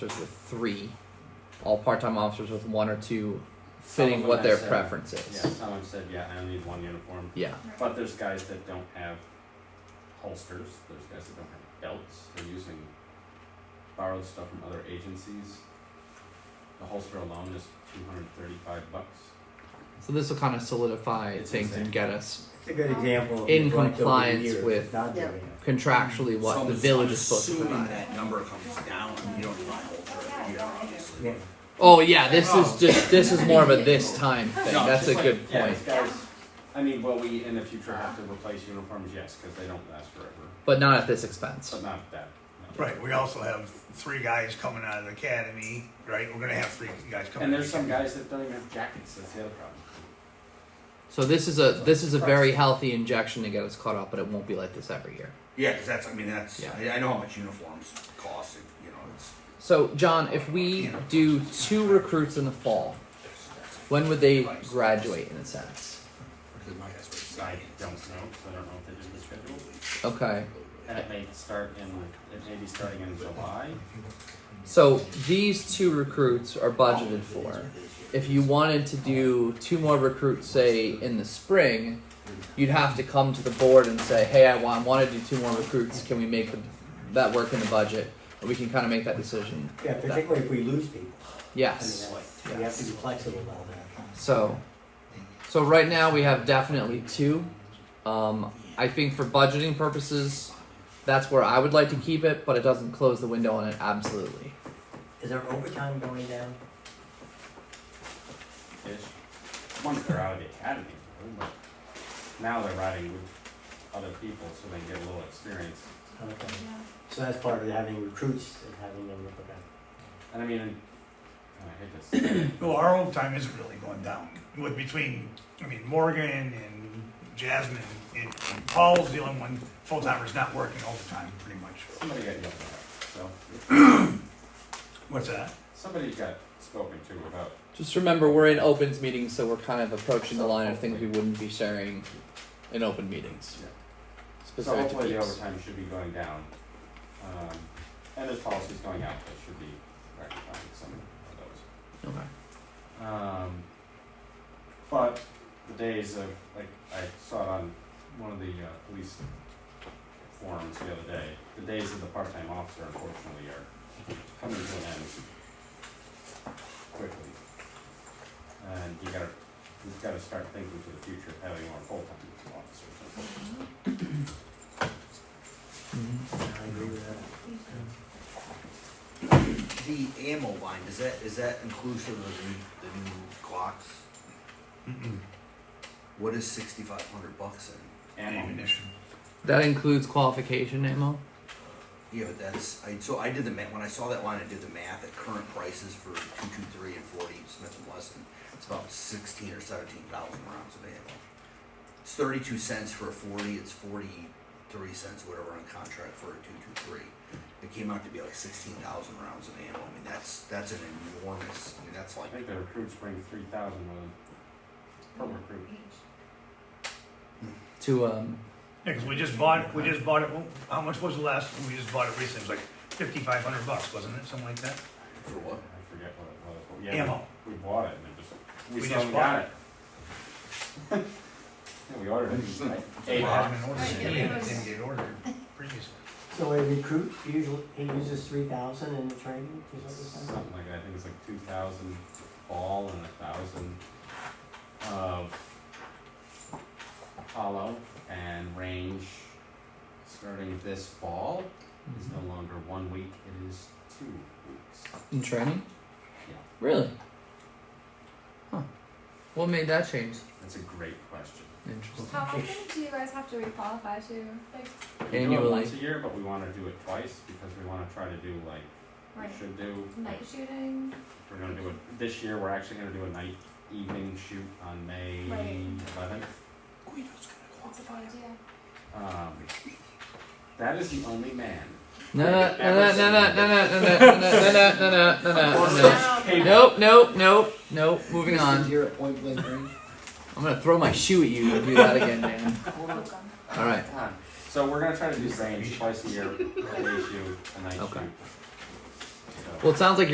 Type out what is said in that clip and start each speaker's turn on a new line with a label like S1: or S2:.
S1: officers with three, all part-time officers with one or two, fitting
S2: Some of
S1: what
S2: them
S1: their
S2: have said-
S1: preference
S2: Yeah,
S1: is.
S2: someone said, yeah, I only need one uniform,
S1: Yeah.
S2: but there's guys that don't have holsters, there's guys that don't have belts, they're using borrowed stuff from other agencies. The holster alone is two hundred thirty-five bucks.
S1: So this will kind of solidify
S2: It's
S1: things
S2: insane.
S1: and get us
S3: It's a good example of
S1: In
S3: neglect over the
S1: compliance
S3: years
S1: with-
S3: of not doing
S4: Yeah.
S3: it.
S1: contractually what
S5: So I'm
S1: the
S5: ass-
S1: village
S5: I'm
S1: is supposed to
S5: Assuming
S1: provide.
S5: that number comes down, you don't rely over every year, obviously.
S3: Yeah.
S1: Oh yeah, this
S5: Oh.
S1: is just this is more of a this time thing.
S2: No,
S1: That's
S2: just
S1: a
S2: like-
S1: good
S2: Yeah,
S1: point.
S2: it's guys, I mean, will we in the future have to replace uniforms? Yes, cause they don't last forever,
S1: But not at this expense.
S2: but not that. no.
S6: Right, we also have three guys coming out of the academy, right? We're gonna have three guys coming.
S2: And there's
S6: out of
S2: some
S6: the academy.
S2: guys that don't even have jackets, that's the other problem.
S1: So this is a this is a very healthy injection to get us caught up, but it won't be like this every year.
S5: Yeah, because that's, I mean, that's,
S1: Yeah.
S5: I, I know how much uniforms cost, it- you know, it's,
S1: So John, if we do two recruits in the fall, when would they graduate in a sense?
S5: because my guess was.
S2: I don't know, 'cause I don't know if they did the schedule.
S1: Okay.
S2: And it may start in, it may be starting in July.
S1: So these two recruits are budgeted for. If you wanted to do two more recruits, say in the spring, you'd have to come to the board and say, "Hey, I want, want to do two more recruits. Can we make the, that work in the budget?" And we can kind of make that decision.
S3: Yeah, particularly if we lose people. I mean,
S1: Yes.
S3: that's- we have to be flexible about that.
S1: So, so right now we have definitely two. Um, I think for budgeting purposes, that's where I would like to keep it, but it doesn't close the window on it absolutely.
S3: Is our overtime going down?
S2: ish. Once they're out of the academy, though, but now they're riding with other people so they get a little experience.
S3: Okay. So that's part of having recruits and having them look at
S2: And I mean, and I hate to say it,
S6: No, our overtime isn't really going down. With between, I mean, Morgan and Jasmine and and Paul's the only one full timer's not working overtime, pretty much.
S2: somebody got yelled at, so
S6: What's that?
S2: somebody got spoken to about
S1: Just remember, we're in opens meetings, so we're kind of approaching the line of things we wouldn't be sharing in open meetings.
S2: Yeah. So
S1: Specific to
S2: hopefully the
S1: peeps.
S2: overtime should be going down. Um, and there's policies going out that should be rectifying some of those.
S1: Okay.
S2: Um, but the days of like I saw it on one of the uh, police forums the other day. The days of the part-time officer, unfortunately, are coming to an end quickly, and you gotta you've got to start thinking for the future of having more full-time officers. unfortunately.
S1: Mm-hmm.
S3: that. I agree with that.
S5: The ammo line, is that, is that inclusive of the, the new clocks?
S6: Mm-mm.
S5: What is sixty-five hundred bucks in?
S2: And
S6: Ammunition.
S1: That includes qualification ammo.
S5: Yeah, but that's, I, so I did the math, when I saw that line, I did the math at current prices for two-two-three and forty Smith and Wesson. It's about sixteen or seventeen thousand rounds of ammo. It's thirty-two cents for a forty, it's forty-three cents, whatever, on contract for a two-two-three. It came out to be like sixteen thousand rounds of ammo, I mean, that's, that's an enormous, I mean, that's
S2: I
S5: like,
S2: think the recruits bring three thousand with them per recruit.
S1: To um,
S6: Yeah, cause we just bought, we just bought it, how much was the last, we just bought it recently, it was like fifty-five hundred bucks, wasn't it? Something like that?
S5: for what?
S2: I forget what it was, but yeah, we-
S6: Ammo.
S2: We bought it and it just, we
S6: We
S2: still
S6: just
S2: haven't
S6: bought
S2: got it. Yeah, we ordered it. like, eight hours.
S6: Jasmine ordered it, and it didn't get ordered previously.
S3: So a recruit usually, he uses three thousand in the training, is that what you said?
S2: Something like that, I think it's like two thousand ball and a thousand of hollow and range starting this fall is no longer one week, it is two weeks.
S1: in training.
S2: Yeah.
S1: Really. Huh. What made that change?
S2: That's a great question.
S1: Interesting.
S4: How often do you guys have to requalify to, like,
S2: We do it
S1: Annually.
S2: once a year, but we wanna do it twice because we wanna try to do like,
S4: right,
S2: we should do
S4: night shooting?
S2: We're gonna do it this year. We're actually gonna do a night evening shoot on May
S4: Right.
S2: eleventh.
S5: Guido's gonna
S4: That's a good idea.
S2: Um, that is the only man.
S1: No, no, no, no, no, no, no, no, no, no, no, no, no, no, no, no. Nope, nope, nope, nope. Moving on.
S7: Here at Point Blank Range.
S1: I'm gonna throw my shoe at you and do that again, Dan. All right.
S2: God. So we're gonna try to do range twice a year. Day shoot, a night
S1: Okay.
S2: shoot. So so.
S1: Well, it sounds like